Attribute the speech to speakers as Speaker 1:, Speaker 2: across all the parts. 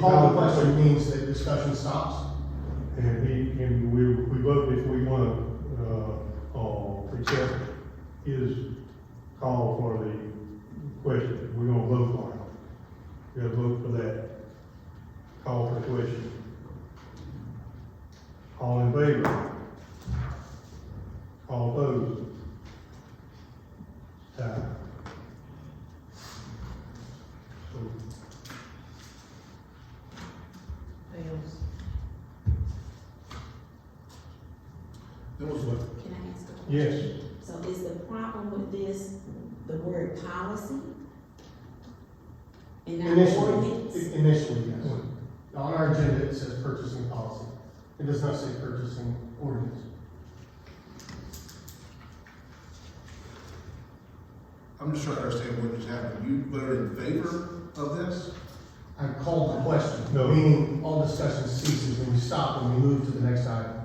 Speaker 1: Call the question means that discussion stops.
Speaker 2: And he, and we, we vote if we want to, uh, uh, accept his call for the question. We're gonna vote for him. We gotta vote for that. Call for the question. All in favor? All opposed? Tie. So,
Speaker 3: Fails.
Speaker 1: That was what?
Speaker 4: Can I ask a question?
Speaker 2: Yes,
Speaker 4: So is the problem with this, the word policy? And not ordinance?
Speaker 1: Initially, initially, yes. On our agenda, it says purchasing policy. It does not say purchasing ordinance.
Speaker 5: I'm just trying to understand what just happened. You voted in favor of this?
Speaker 1: I called the question,
Speaker 2: No.
Speaker 1: meaning all discussion ceases when we stop and we move to the next item.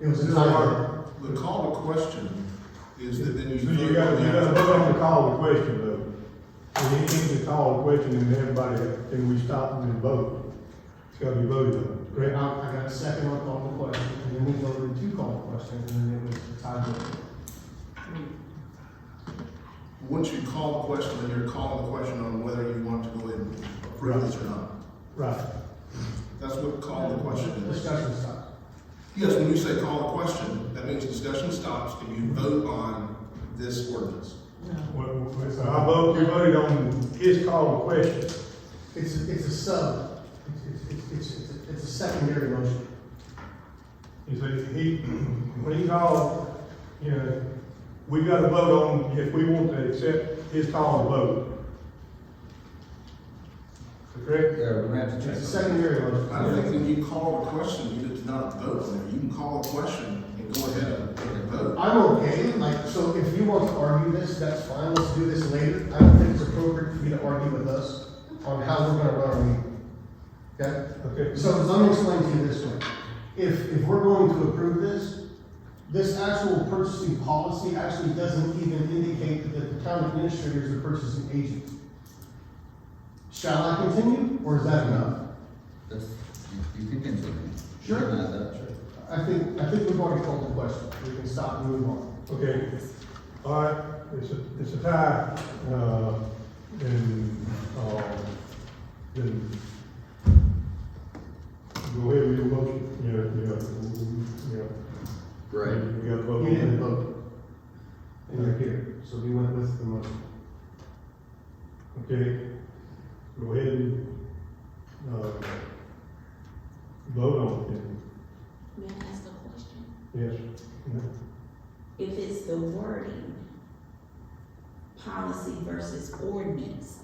Speaker 1: It was a tie.
Speaker 5: The call to question is that then you.
Speaker 2: So you
Speaker 5: vote
Speaker 2: gotta,
Speaker 5: on
Speaker 2: you
Speaker 5: that.
Speaker 2: gotta vote on the call to question though. When you need to call the question and everybody, then we stop and then vote. It's gotta be voted on,
Speaker 1: Great,
Speaker 2: correct?
Speaker 1: I I got a second on call the question, and then we voted to call the question, and then it was a tie vote.
Speaker 5: Once you call the question, then you're calling the question on whether you want to go ahead and approve this or not.
Speaker 2: Right.
Speaker 5: That's what call the question is.
Speaker 1: Discussion stops.
Speaker 5: Yes, when you say call the question, that means discussion stops and you vote on this ordinance.
Speaker 3: No.
Speaker 2: Well, well, so I vote, we voted on his call to question.
Speaker 1: It's, a- it's a sub, it's, it's, it's, it's, it's a secondary motion.
Speaker 2: He said, he, when he called, you know, we gotta vote on if we want to accept his call to vote. Correct?
Speaker 6: Yeah, we're gonna have to
Speaker 1: It's
Speaker 6: check.
Speaker 1: a secondary motion.
Speaker 5: I think when you call the question, you did not vote on it. You can call a question and go ahead and vote.
Speaker 1: I'm okay, like, so if you want to argue this, that's fine, let's do this later. I don't think it's appropriate for you to argue with us on how we're gonna run our meeting. Okay?
Speaker 2: Okay.
Speaker 1: So let me explain to you this way. If, if we're going to approve this, this actual purchasing policy actually doesn't even indicate that the town administrator is a purchasing agent. Shall I continue, or is that enough?
Speaker 6: That's, you, you can continue.
Speaker 1: Sure.
Speaker 6: You can add that, sure.
Speaker 1: I think, I think we've already called the question. We can stop and move on.
Speaker 2: Okay, all right, it's a, it's a tie, uh, and, um, then go ahead with your motion, yeah, yeah, yeah.
Speaker 6: Right,
Speaker 2: You got a vote.
Speaker 1: You didn't vote. And you're here, so we went with the motion.
Speaker 2: Okay, go ahead and, uh, vote on it, then.
Speaker 4: May I ask a question?
Speaker 2: yes. no.
Speaker 4: If it's the wording, policy versus ordinance,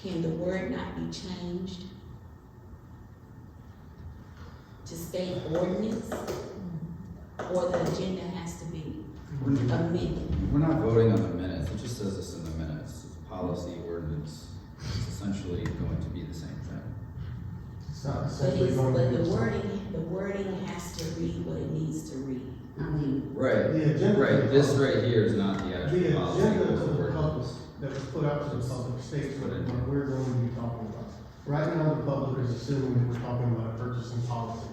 Speaker 4: can the word not be changed? To state ordinance? Or the agenda has to be amended?
Speaker 6: we're not voting on the minutes, it just says this in the minutes, It's policy ordinance, it's essentially going to be the same thing.
Speaker 1: It's not
Speaker 4: But
Speaker 1: essentially
Speaker 4: it's,
Speaker 1: going to
Speaker 4: but
Speaker 1: be.
Speaker 4: the wording, the wording has to read what it needs to read. I mean,
Speaker 6: Right,
Speaker 1: The agenda.
Speaker 6: right, this right here is not the
Speaker 1: The
Speaker 6: actual policy
Speaker 1: agenda
Speaker 6: or
Speaker 1: to the public
Speaker 6: ordinance.
Speaker 1: that was put out to the public states what it- what we're going to be talking about. Right now, the public is assuming that we're talking about a purchasing policy.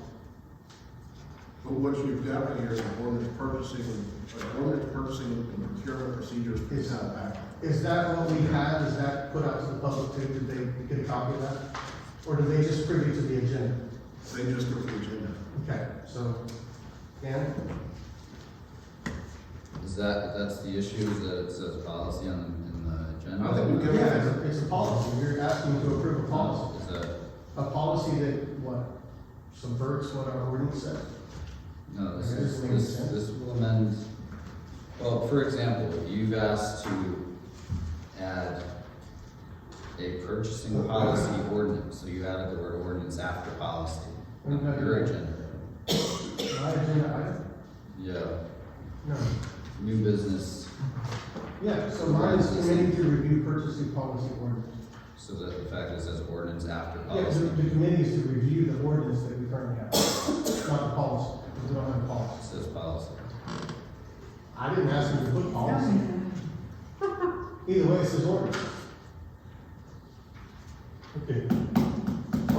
Speaker 5: But what you've got here is an ordinance purchasing, an ordinance purchasing and procurement procedures.
Speaker 1: It's not that. Is that what we had? Is that put out to the public too? Did they get a copy of that? Or did they just privy to the agenda?
Speaker 5: They just go to the agenda.
Speaker 1: Okay, so, Dan?
Speaker 6: Is that, that's the issue, is that it says policy on, in the agenda?
Speaker 5: I think we can-
Speaker 1: Yeah, it's- it's a policy. You're asking to approve a policy.
Speaker 6: Is that,
Speaker 1: A policy that, what, subverts what our ordinance says?
Speaker 6: no, this
Speaker 1: Okay,
Speaker 6: is,
Speaker 1: this makes
Speaker 6: this,
Speaker 1: sense.
Speaker 6: this will amend, well, for example, you've asked to add a purchasing policy ordinance, so you added the word ordinance after policy.
Speaker 1: What about
Speaker 6: Your agenda,
Speaker 1: My agenda item?
Speaker 6: yeah,
Speaker 1: No.
Speaker 6: new business,
Speaker 1: Yeah, so mine is committee to review purchasing policy ordinance.
Speaker 6: so that the fact that it says ordinance after
Speaker 1: Yeah, the,
Speaker 6: policy.
Speaker 1: the committee is to review the ordinance that we currently have, not the policy, because we don't have a policy.
Speaker 6: It Says policy.
Speaker 1: I didn't ask them to put policy. Either way, it says ordinance.
Speaker 2: Okay,